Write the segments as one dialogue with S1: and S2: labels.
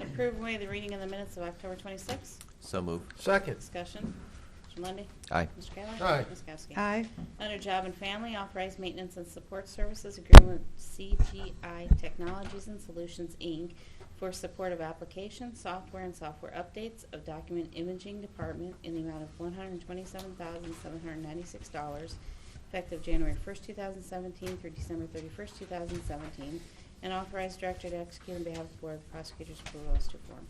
S1: Approve away the reading of the minutes of October 26th.
S2: So move.
S3: Second.
S1: Discussion. Mr. Lundy.
S2: Aye.
S1: Mr. Kayla.
S3: Aye.
S1: Ms. Kowski.
S4: aye,
S1: Under Job and Family, authorize maintenance and support services agreement with CGI Technologies and Solutions, Inc. for support of application, software, and software updates of document imaging department in the amount of $127,796, effective January 1st, 2017 through December 31st, 2017, and authorize director to execute on behalf of the Board of Prosecutors' approval as to form.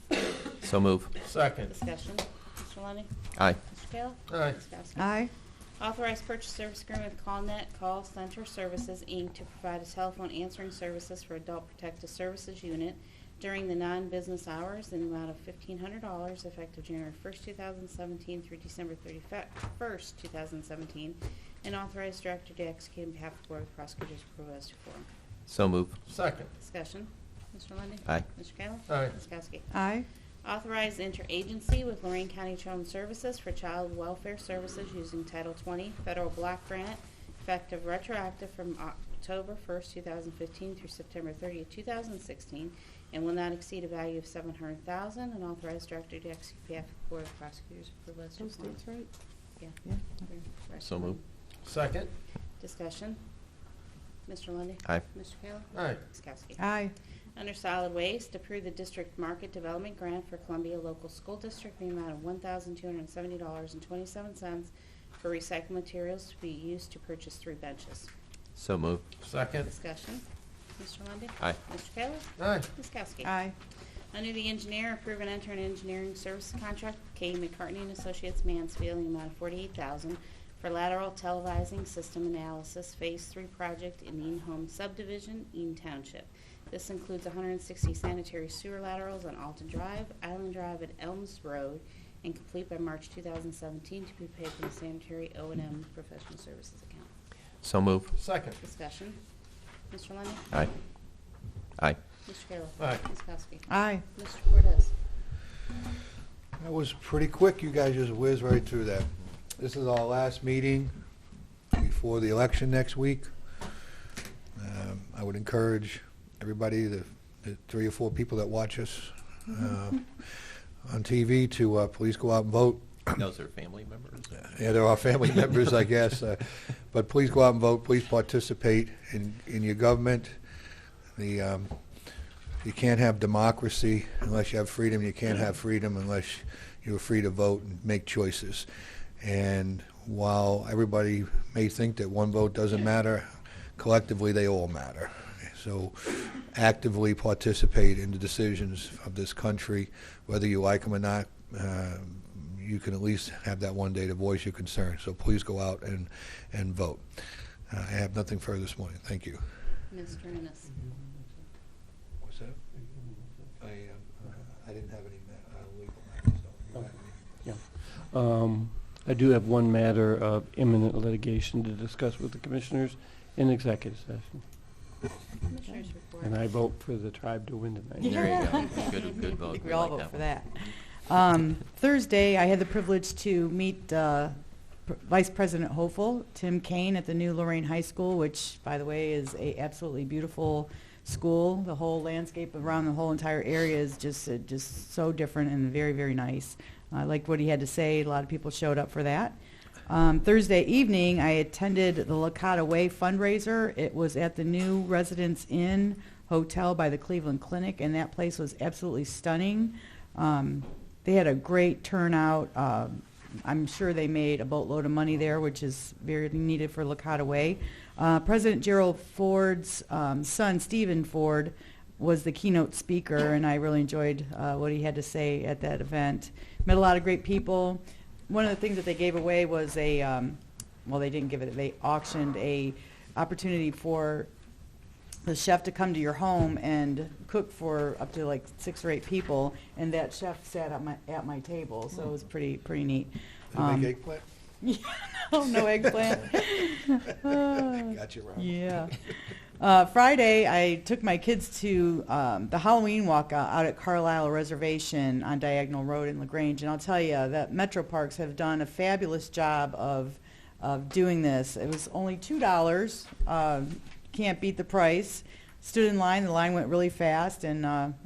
S2: So move.
S3: Second.
S1: Discussion. Mr. Lundey.
S2: Aye.
S1: Mr. Kayla.
S3: Aye.
S1: Ms. Kowski.
S4: aye,
S1: Authorized purchase service agreement with CallNet Call Center Services, Inc. to provide a telephone answering services for Adult Protective Services Unit during the non-business hours in the amount of $1,500 effective January 1st, 2017 through December 31st, 2017, and authorized director to execute on behalf of the Board of Prosecutors' approval as to form.
S2: So move.
S3: Second.
S1: Discussion. Mr. Lundey.
S2: Aye.
S1: Mr. Kayla.
S3: Aye.
S1: Ms. Kowski.
S4: aye,
S1: Authorize interagency with Lorraine County Children's Services for Child Welfare Services using Title 20 Federal Block Grant, effective retroactive from October 1st, 2015 through September 30th, 2016, and will not exceed a value of 700000 and authorize director to execute behalf of the Board of Prosecutors for those who want.
S4: right.
S1: Yeah.
S4: Yeah.
S2: So moved.
S3: Second.
S1: Discussion. Mr. Lundy.
S2: Aye.
S1: Mr. Kayla.
S3: Aye.
S1: Ms. Kowski.
S4: aye,
S1: Under solid waste, approve the district market development grant for Columbia Local School District in the amount of $1,270.27 for recycled materials to be used to purchase three benches.
S2: So move.
S3: Second.
S1: Discussion. Mr. Lundy.
S2: Aye.
S1: Mr. Kayla?
S3: Aye.
S1: Ms. Kowski?
S4: aye,
S1: Under the engineer, approve and enter an engineering service contract with K. McCartney and Associates Mansfield in the amount of $48,000 for lateral televising system analysis Phase 3 project in Ean Home subdivision, Ean Township. This includes 160 sanitary sewer laterals on Alton Drive, Island Drive, and Elms Road, and complete by March 2017 to be paid from the sanitary o and m professional services account.
S2: So move.
S3: Second.
S1: Discussion. Mr. Lundy.
S2: Aye. Aye.
S1: Mr. Kayla.
S3: Aye.
S1: Ms. Kowski.
S4: aye.
S1: Mr. Cordez.
S5: That was pretty quick. You guys just whizzed right through that. This is our last meeting before the election next week. Um, I would encourage everybody, the the three or four people that watch us uh, on TV, to uh, please go out and vote.
S2: Those are family members?
S5: Yeah, they're our family members, I guess. uh, But please go out and vote. Please participate in, in your government. The, um, you can't have democracy unless you have freedom. You can't have freedom unless you're free to vote and make choices. And while everybody may think that one vote doesn't matter, collectively, they all matter. So actively participate in the decisions of this country, whether you like them or not. Um, you can at least have that one day to voice your concern. So please go out and, and vote. Uh, I have nothing further this morning. Thank you.
S1: Mr. Ennis.
S5: What's that? I, um, I didn't have any ma- uh, legal matters. though. You have any?
S6: Um, I do have one matter of imminent litigation to discuss with the commissioners in executive session,
S1: Commissioners report.
S6: and I vote for the tribe to win tonight.
S2: There you go. Good, good vote.
S4: I think we
S2: Oh, We
S4: all
S2: like
S4: vote for
S2: one.
S4: that. Um, Thursday, I had the privilege to meet uh, Pr- Vice President Hopeful, Tim Kane, at the new Lorraine High School, which, by the way, is a absolutely beautiful school. The whole landscape around the whole entire area is just, uh, just so different and very, very nice. I liked what he had to say. A lot of people showed up for that. Um, Thursday evening, I attended the Lakota Way fundraiser. It was at the new Residence Inn Hotel by the Cleveland Clinic, and that place was absolutely stunning. Um, they had a great turnout. Um I'm sure they made a boatload of money there, which is very needed for Lakota Way. Uh, President Gerald Ford's um, son, Stephen Ford, was the keynote speaker, and I really enjoyed uh, what he had to say at that event. Met a lot of great people. One of the things that they gave away was a, um, well, they didn't give it. They auctioned a opportunity for the chef to come to your home and cook for up to like six or eight people, and that chef sat at my at my table, so it was pretty pretty neat.
S5: Did you
S4: Um,
S5: make eggplant?
S4: oh, no eggplant. Oh,
S5: Got you, Robert.
S4: Yeah. Uh, Friday, I took my kids to um, the Halloween walk out out at Carlisle Reservation on Diagonal Road in LaGrange, and I'll tell you that Metro Parks have done a fabulous job of of doing this. It was only two um, dollars. Uh, can't beat the price. Stood in line. The line went really fast, and uh,